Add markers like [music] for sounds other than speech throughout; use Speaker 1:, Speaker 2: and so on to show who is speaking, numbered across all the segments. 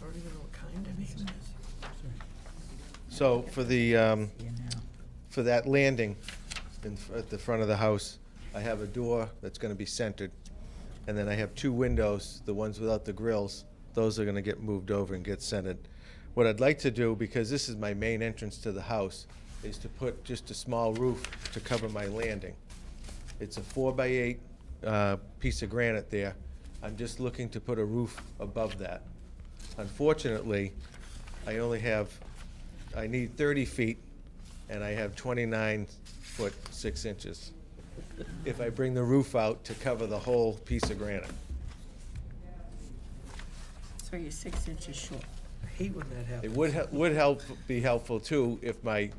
Speaker 1: don't even know what kind of name it is.
Speaker 2: So for the, um, for that landing in, fr- at the front of the house, I have a door that's gonna be centered. And then I have two windows, the ones without the grills, those are gonna get moved over and get centered. What I'd like to do, because this is my main entrance to the house, is to put just a small roof to cover my landing. It's a four by eight, uh, piece of granite there. I'm just looking to put a roof above that. Unfortunately, I only have, I need thirty feet, and I have twenty-nine foot six inches. If I bring the roof out to cover the whole piece of granite.
Speaker 3: So you're six inches short.
Speaker 1: I hate when that
Speaker 2: It
Speaker 1: happens.
Speaker 2: would, he- would help, be helpful too, if my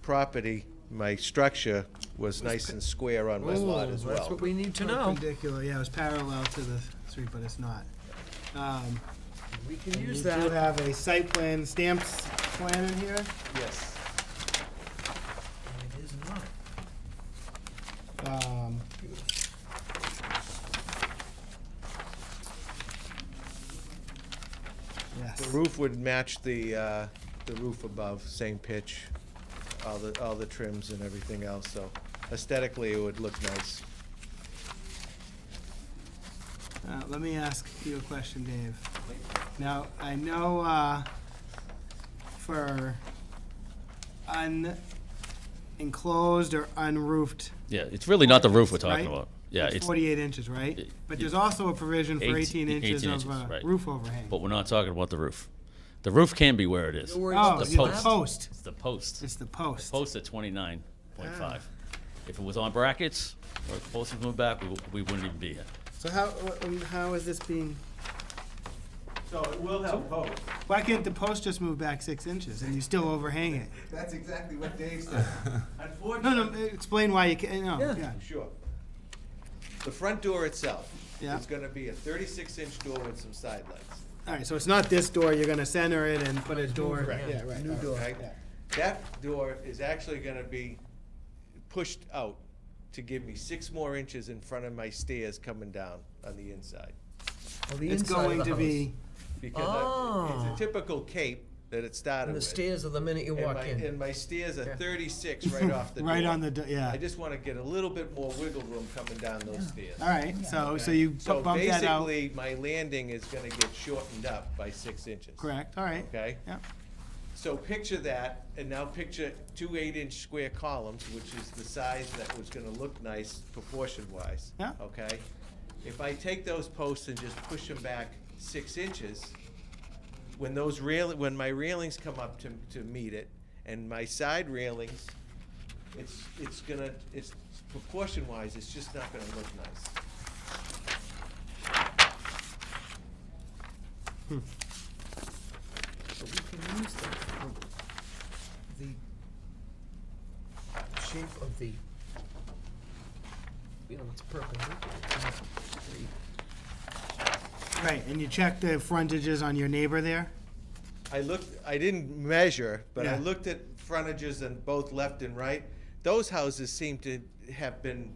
Speaker 2: property, my structure was nice and square on my lot as well.
Speaker 1: That's what we need to know.
Speaker 4: Perpendicular, yeah, it was parallel to the street, but it's not. Um,
Speaker 1: We can
Speaker 4: You
Speaker 1: use
Speaker 4: do
Speaker 1: that.
Speaker 4: have a site plan stamps plan in here.
Speaker 2: Yes.
Speaker 1: And It is not.
Speaker 4: Um,
Speaker 2: The
Speaker 4: Yes.
Speaker 2: roof would match the, uh, the roof above, same pitch, all the, all the trims and everything else, so aesthetically, it would look nice.
Speaker 4: Uh, Let me ask you a question, Dave. Now, I know uh, for unenclosed or unroofed,
Speaker 5: Yeah, it's really not the roof we're
Speaker 4: Right?
Speaker 5: talking about. Yeah,
Speaker 4: it's
Speaker 5: it's,
Speaker 4: 48 inches, right? But there's also a provision for 18
Speaker 5: Eighteen-
Speaker 4: inches
Speaker 5: 18
Speaker 4: of
Speaker 5: inches,
Speaker 4: uh,
Speaker 5: right.
Speaker 4: roof overhang.
Speaker 5: but we're not talking about the roof. The roof can be where it is.
Speaker 1: You're worried
Speaker 4: Oh,
Speaker 1: about
Speaker 4: it's
Speaker 5: the
Speaker 4: the
Speaker 5: post.
Speaker 4: post.
Speaker 5: It's the post.
Speaker 4: It's Ah. the post.
Speaker 5: Post at twenty-nine point five. If it was on brackets, or if the post was moved back, we, w- we wouldn't even be here.
Speaker 4: So how, wh- um, how is this being,
Speaker 2: So it will help both.
Speaker 4: why can't the post just move back six inches and you still overhang it?
Speaker 2: That's exactly what Dave said.
Speaker 4: No, no,
Speaker 2: Unfortunately,
Speaker 4: explain why you can't, no,
Speaker 1: Yeah.
Speaker 4: yeah.
Speaker 2: Sure. The front door itself
Speaker 4: Yeah.
Speaker 2: is gonna be a thirty-six inch door with some side lights.
Speaker 4: All right, so it's not this door, you're gonna center it and put a door,
Speaker 2: Correct.
Speaker 4: yeah, right. New door.
Speaker 2: right? That door is actually gonna be pushed out to give me six more inches in front of my stairs coming down on the inside.
Speaker 1: Well, the
Speaker 4: It's
Speaker 1: inside of
Speaker 4: going
Speaker 1: the
Speaker 4: to
Speaker 1: house.
Speaker 4: be,
Speaker 2: Because I-
Speaker 1: Oh.
Speaker 2: it's a typical cape that it started
Speaker 1: And the
Speaker 2: with.
Speaker 1: stairs are the minute you
Speaker 2: and
Speaker 1: walk
Speaker 2: my-
Speaker 1: in.
Speaker 2: And my stairs are
Speaker 1: Yeah.
Speaker 2: thirty-six right off
Speaker 1: [laughs]
Speaker 2: the door.
Speaker 4: right on the, do- yeah.
Speaker 2: I just wanna get a little bit more wiggle room coming down those stairs.
Speaker 4: All right, so, so you bu-
Speaker 2: So
Speaker 4: bump that out,
Speaker 2: basically, my landing is gonna get shortened up by six inches.
Speaker 4: correct, all right.
Speaker 2: Okay?
Speaker 4: Yeah,
Speaker 2: So picture that, and now picture two eight-inch square columns, which is the size that was gonna look nice proportion-wise.
Speaker 4: Yeah.
Speaker 2: Okay? If I take those posts and just push them back six inches, when those rail, when my railings come up to, to meet it, and my side railings, it's, it's gonna, it's proportion-wise, it's just not gonna look nice.
Speaker 1: But we can use that for the shape of the, you know, it's perpendicular. it's not straight.
Speaker 4: right, and you check the frontages on your neighbor there?
Speaker 2: I looked, I didn't measure, but I
Speaker 4: Yeah.
Speaker 2: looked at frontages on both left and right. Those houses seem to have been,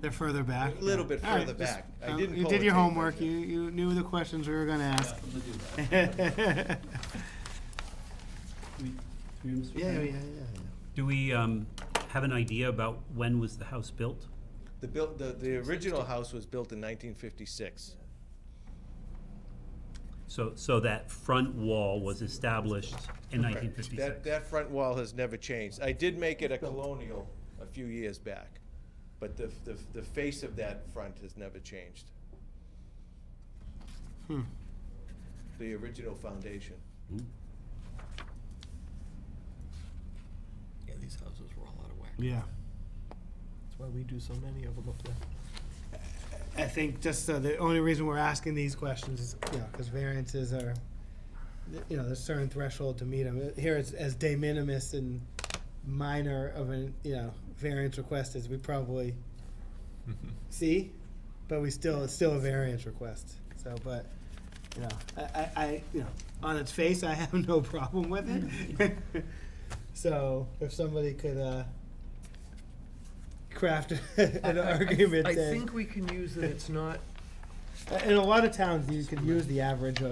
Speaker 4: They're further back?
Speaker 2: A little bit
Speaker 4: All right,
Speaker 2: further
Speaker 4: just-
Speaker 2: back. I
Speaker 4: uh,
Speaker 2: didn't
Speaker 4: You
Speaker 2: pull
Speaker 4: did
Speaker 2: a
Speaker 4: your
Speaker 2: tape
Speaker 4: homework,
Speaker 2: measure.
Speaker 4: you, you knew the questions we were gonna ask. [laughs] Yeah, yeah, yeah.
Speaker 6: Do we um, have an idea about when was the house built?
Speaker 2: the built, the, the original house was built in nineteen fifty-six.
Speaker 6: So, so that front wall was established in
Speaker 2: That,
Speaker 6: 1956?
Speaker 2: that front wall has never changed. I did make it a colonial a few years back, but the, the, the face of that front has never changed. The original foundation.
Speaker 1: Yeah, these houses were all out of whack.
Speaker 4: Yeah.
Speaker 1: That's why we do so many of them up there.
Speaker 4: I think just uh, the only reason we're asking these questions is, you know, because variances are, you know, there's certain threshold to meet them. Here it's as de minimis and minor of an, you know, variance request as we probably see, but we still, it's still a variance request. So, but, you know, I, I, I, you know, on its face, I have [laughs] no problem with it. [laughs] So if somebody could, uh, craft [laughs] an
Speaker 1: I- I-
Speaker 4: argument
Speaker 1: I
Speaker 4: that.
Speaker 1: think we can use that it's not
Speaker 4: In a lot of towns, you can use the average of